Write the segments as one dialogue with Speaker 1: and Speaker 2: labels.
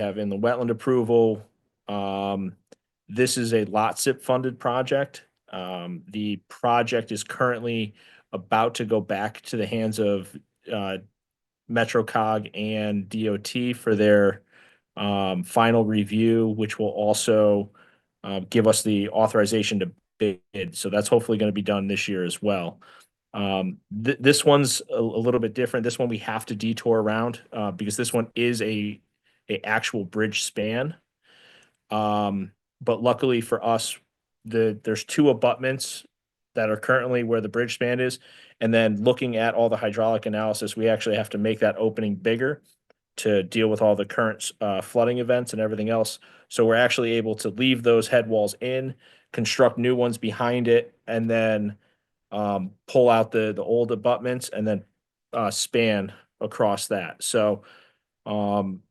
Speaker 1: have in the wetland approval. Um, this is a lot SIP funded project. Um, the project is currently about to go back to the hands of, uh, MetroCog and DOT for their, um, final review, which will also, uh, give us the authorization to bid. So that's hopefully going to be done this year as well. Um, th- this one's a, a little bit different. This one we have to detour around, uh, because this one is a, a actual bridge span. Um, but luckily for us, the, there's two abutments that are currently where the bridge span is. And then looking at all the hydraulic analysis, we actually have to make that opening bigger to deal with all the current, uh, flooding events and everything else. So we're actually able to leave those head walls in, construct new ones behind it, and then um, pull out the, the old abutments and then uh, span across that. So um,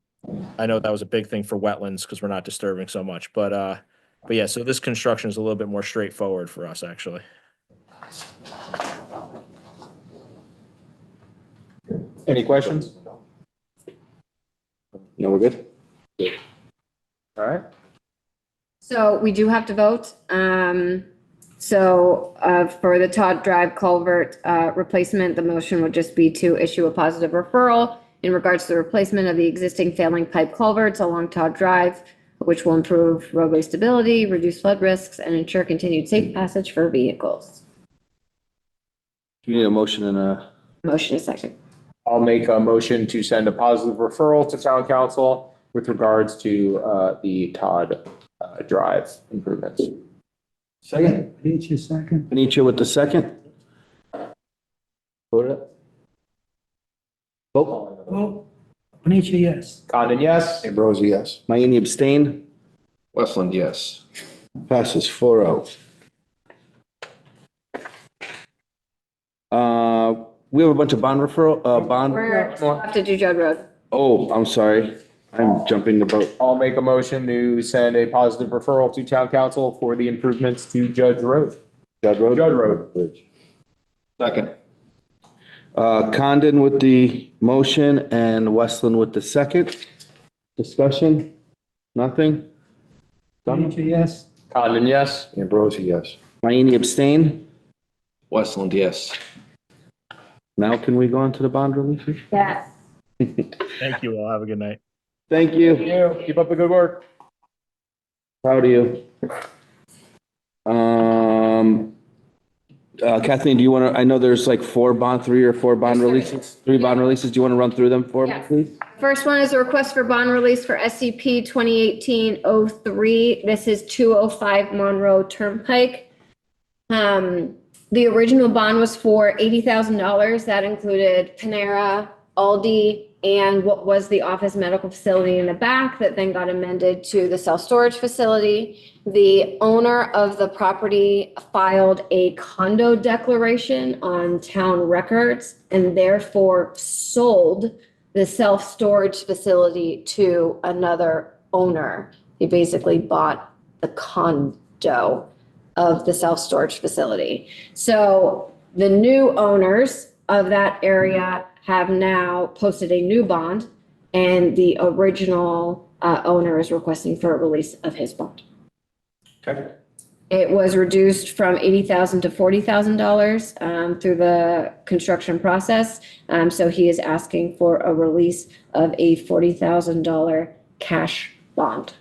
Speaker 1: I know that was a big thing for wetlands because we're not disturbing so much, but, uh, but yeah, so this construction is a little bit more straightforward for us, actually.
Speaker 2: Any questions? No, we're good? All right,
Speaker 3: So we do have to vote. Um, so, uh, for the Todd Drive culvert, uh, replacement, the motion would just be to issue a positive referral in regards to the replacement of the existing failing pipe culverts along Todd Drive, which will improve roadway stability, reduce flood risks, and ensure continued safe passage for vehicles.
Speaker 2: do we need a motion and a?
Speaker 3: Motion is second.
Speaker 2: I'll make a motion to send a positive referral to town council with regards to uh, the Todd uh, Drive improvements. Second.
Speaker 4: Page is second.
Speaker 2: Panitia with the second. Vote it. Vote.
Speaker 4: Vote. Panitia, yes.
Speaker 2: Condon, yes.
Speaker 5: Ambrosi, yes.
Speaker 2: Mayini abstained.
Speaker 6: Westland, yes.
Speaker 5: Passes four oh.
Speaker 2: Uh, We have a bunch of bond referral, uh, bond.
Speaker 3: We're, we have to do Judd Road.
Speaker 5: Oh, I'm sorry. I'm jumping the boat.
Speaker 2: I'll make a motion to send a positive referral to town council for the improvements to Judge Road.
Speaker 5: Judd Road?
Speaker 2: Judd Road.
Speaker 5: Bridge.
Speaker 6: Second.
Speaker 5: Uh, Condon with the motion and Westland with the second. Discussion? Nothing?
Speaker 4: Panitia, yes.
Speaker 2: Condon, yes.
Speaker 5: Ambrosi, yes. Mayini abstained.
Speaker 6: Westland, yes.
Speaker 5: Now can we go on to the bond release?
Speaker 3: Yes.
Speaker 1: Thank you all. Have a good night.
Speaker 5: Thank you.
Speaker 2: You, keep up the good work.
Speaker 5: Proud of you. Um, uh, Kathleen, do you want to, I know there's like four bond, three or four bond
Speaker 3: There's three.
Speaker 5: releases, three bond releases. Do you want to run through them for me,
Speaker 3: Yes.
Speaker 5: please?
Speaker 3: First one is a request for bond release for E SCP 2018-03. This is 205 Monroe Turnpike. Um, The original bond was for $80,000. That included Panera, Aldi, and what was the office medical facility in the back that then got amended to the self-storage facility. The owner of the property filed a condo declaration on town records and therefore sold the self-storage facility to another owner. He basically bought the condo of the self-storage facility. So the new owners of that area have now posted a new bond and the original uh, owner is requesting for a release of his bond.
Speaker 2: Okay.
Speaker 3: It was reduced from eighty thousand to forty thousand dollars um, through the construction process. Um, So he is asking for a release of a forty thousand dollar cash bond.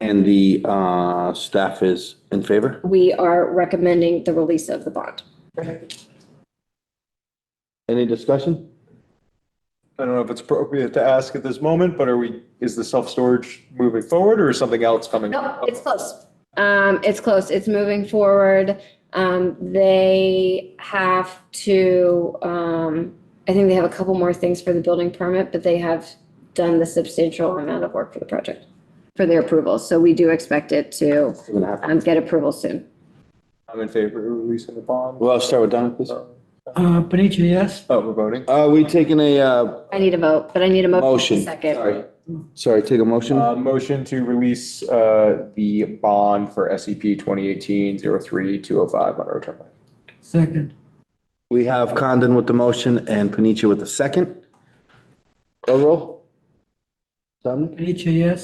Speaker 5: And the uh, staff is in favor?
Speaker 3: We are recommending the release of the bond.
Speaker 5: Any discussion?
Speaker 7: I don't know if it's appropriate to ask at this moment, but are we, is the self-storage moving forward or is something else coming?
Speaker 3: No,
Speaker 7: up?
Speaker 3: it's close. Um, It's close. It's moving forward. Um, They have to, um, I think they have a couple more things for the building permit, but they have done the substantial amount of work for the project, for their approval. So we do expect it to
Speaker 5: We're gonna have-
Speaker 3: um, get approval soon.
Speaker 7: I'm in favor of releasing the bond.
Speaker 5: Well, I'll start with Don, please.
Speaker 4: Uh, Panitia, yes.
Speaker 7: Oh, we're voting.
Speaker 5: Are we taking a uh,
Speaker 3: I need a vote, but I need a motion
Speaker 5: motion?
Speaker 3: in a second.
Speaker 5: Sorry. Sorry, take a motion?
Speaker 2: Uh, motion to release, uh, the bond for
Speaker 7: E
Speaker 2: SCP 2018-03-205 Monroe Turnpike.
Speaker 4: Second.
Speaker 5: We have Condon with the motion and Panitia with the second. Roll roll? Dominic?
Speaker 4: Panitia, yes?